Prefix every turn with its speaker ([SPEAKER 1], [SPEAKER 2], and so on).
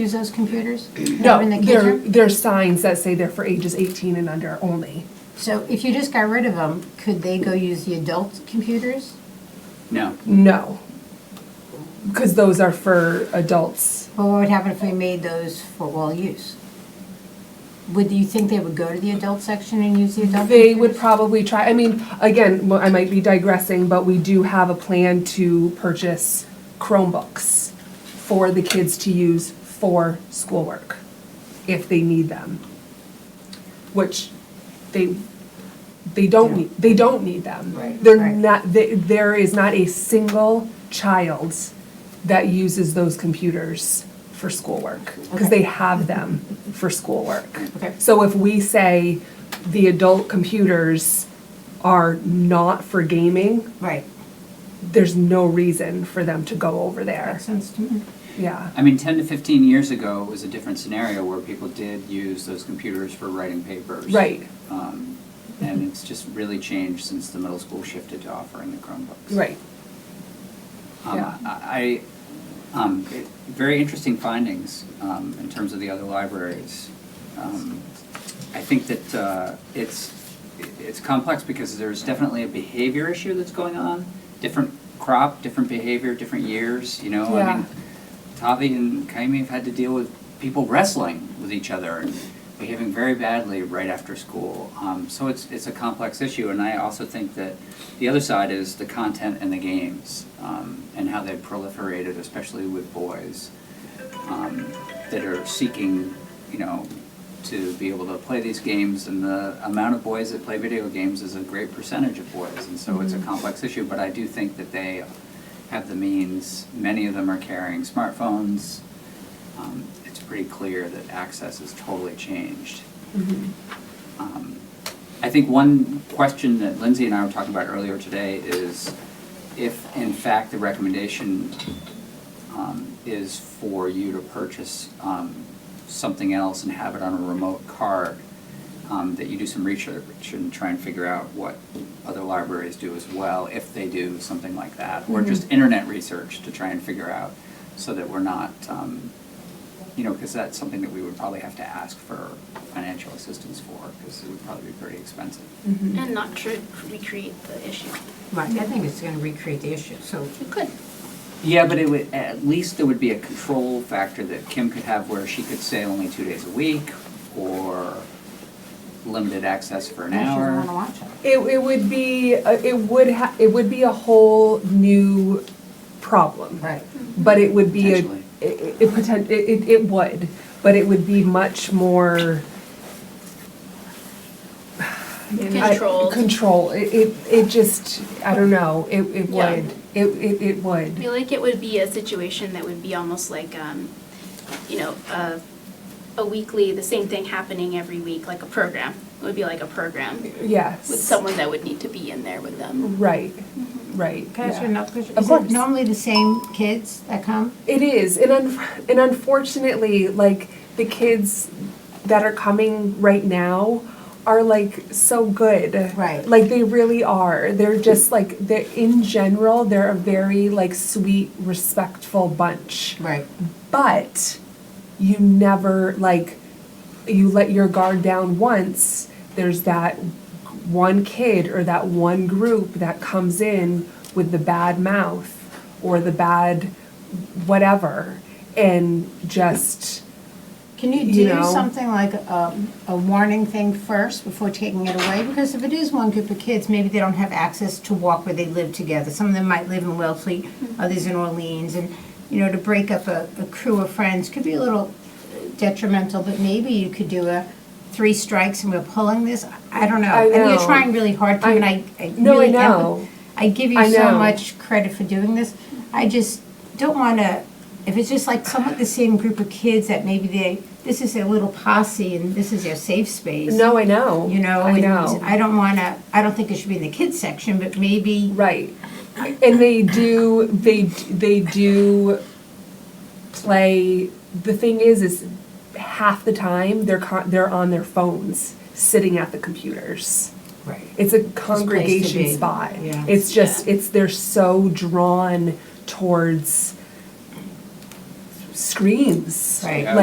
[SPEAKER 1] use those computers?
[SPEAKER 2] No,
[SPEAKER 1] In the
[SPEAKER 2] there,
[SPEAKER 1] kitchen?
[SPEAKER 2] there's signs that say they're for ages 18 and under only.
[SPEAKER 1] So if you just got rid of them, could they go use the adult computers?
[SPEAKER 3] No,
[SPEAKER 2] No. Because those are for adults.
[SPEAKER 1] But what would happen if we made those for all use? Would you think they would go to the adult section and use the adult?
[SPEAKER 2] They would
[SPEAKER 1] computers?
[SPEAKER 2] probably try, I mean, again, well, I might be digressing, but we do have a plan to purchase Chromebooks for the kids to use for schoolwork, if they need them. Which they, they don't need, they don't need them.
[SPEAKER 1] Right.
[SPEAKER 2] They're
[SPEAKER 1] Right.
[SPEAKER 2] not, they- there is not a single child that uses those computers for schoolwork, because
[SPEAKER 1] Okay.
[SPEAKER 2] they have them for schoolwork.
[SPEAKER 1] Okay.
[SPEAKER 2] So if we say the adult computers are not for gaming,
[SPEAKER 1] Right.
[SPEAKER 2] there's no reason for them to go over there.
[SPEAKER 1] Makes sense to me.
[SPEAKER 2] Yeah.
[SPEAKER 3] I mean, 10 to 15 years ago, it was a different scenario where people did use those computers for writing papers.
[SPEAKER 2] Right.
[SPEAKER 3] Um, And it's just really changed since the middle school shifted to offering the Chromebooks.
[SPEAKER 2] Right.
[SPEAKER 3] Um,
[SPEAKER 2] Yeah.
[SPEAKER 3] I, I, um, it- very interesting findings um, in terms of the other libraries. Um, I think that uh, it's, it's complex because there's definitely a behavior issue that's going on. Different crop, different behavior, different years, you know? I mean, Tavi and Kaimi have had to deal with people wrestling with each other and behaving very badly right after school. Um, so it's it's a complex issue, and I also think that the other side is the content and the games um, and how they've proliferated, especially with boys um, that are seeking, you know, to be able to play these games. And the amount of boys that play video games is a great percentage of boys, and so it's a complex issue. But I do think that they have the means. Many of them are carrying smartphones. Um, it's pretty clear that access has totally changed. Um, I think one question that Lindsay and I were talking about earlier today is if, in fact, the recommendation um, is for you to purchase um, something else and have it on a remote card, um, that you do some research and try and figure out what other libraries do as well, if they do something like that, or just internet research to try and figure out, so that we're not, um, you know, because that's something that we would probably have to ask for financial assistance for, because it would probably be pretty expensive.
[SPEAKER 4] And not tr recreate the issue.
[SPEAKER 1] Right, I think it's gonna recreate the issue, so.
[SPEAKER 4] You could.
[SPEAKER 3] Yeah, but it would, at least there would be a control factor that Kim could have where she could say only two days a week or limited access for an
[SPEAKER 1] I sure wanna
[SPEAKER 3] hour.
[SPEAKER 1] watch it.
[SPEAKER 2] It, it would be, a- it would ha, it would be a whole new problem.
[SPEAKER 1] Right.
[SPEAKER 2] But it would be, a-
[SPEAKER 3] Potentially.
[SPEAKER 2] it, it, poten- it, it- it would, but it would be much more. I-
[SPEAKER 4] Controlled.
[SPEAKER 2] Control, it, it, it just, I don't know, it, it
[SPEAKER 4] Yeah.
[SPEAKER 2] would, it, it, it would.
[SPEAKER 4] I feel like it would be a situation that would be almost like, um, you know, a, a weekly, the same thing happening every week, like a program. It would be like a program
[SPEAKER 2] Yes.
[SPEAKER 4] with someone that would need to be in there with them.
[SPEAKER 2] Right, right.
[SPEAKER 1] Can I ask you
[SPEAKER 2] yeah.
[SPEAKER 1] another question?
[SPEAKER 2] Of
[SPEAKER 1] Is it
[SPEAKER 2] course.
[SPEAKER 1] Normally the same kids that come?
[SPEAKER 2] It is, and un- and unfortunately, like the kids that are coming right now are like so good.
[SPEAKER 1] Right.
[SPEAKER 2] Like they really are. They're just like they're in general, they're a very like sweet, respectful bunch.
[SPEAKER 1] Right.
[SPEAKER 2] But you never like you let your guard down once, there's that one kid or that one group that comes in with the bad mouth or the bad whatever and just
[SPEAKER 1] Can you
[SPEAKER 2] You
[SPEAKER 1] do
[SPEAKER 2] know.
[SPEAKER 1] something like a, a warning thing first before taking it away? Because if it is one group of kids, maybe they don't have access to walk where they live together. Some of them might live in Wellfleet,
[SPEAKER 2] Mm-hmm.
[SPEAKER 1] others in Orleans, and, you know, to break up a, a crew of friends could be a little detrimental, but maybe you could do a three strikes and we're pulling this, I don't know.
[SPEAKER 2] I
[SPEAKER 1] And
[SPEAKER 2] know.
[SPEAKER 1] you're trying really hard to, uh, and I, I really.
[SPEAKER 2] no, I
[SPEAKER 1] empath-
[SPEAKER 2] know.
[SPEAKER 1] I give you
[SPEAKER 2] I
[SPEAKER 1] so
[SPEAKER 2] know.
[SPEAKER 1] much credit for doing this. I just don't want to, if it's just like somewhat the same group of kids that maybe they, this is their little posse and this is their safe space.
[SPEAKER 2] No, I know.
[SPEAKER 1] You know?
[SPEAKER 2] I
[SPEAKER 1] and
[SPEAKER 2] know.
[SPEAKER 1] I don't want to, I don't think it should be in the kids section, but maybe,
[SPEAKER 2] Right. And they do they they do play the thing is is half the time they're con- they're on their phones sitting at the computers.
[SPEAKER 1] right,
[SPEAKER 2] It's a congregation
[SPEAKER 1] be.
[SPEAKER 2] spot.
[SPEAKER 1] Yeah.
[SPEAKER 2] It's just it's they're so drawn towards screams.
[SPEAKER 1] Right.
[SPEAKER 2] Like,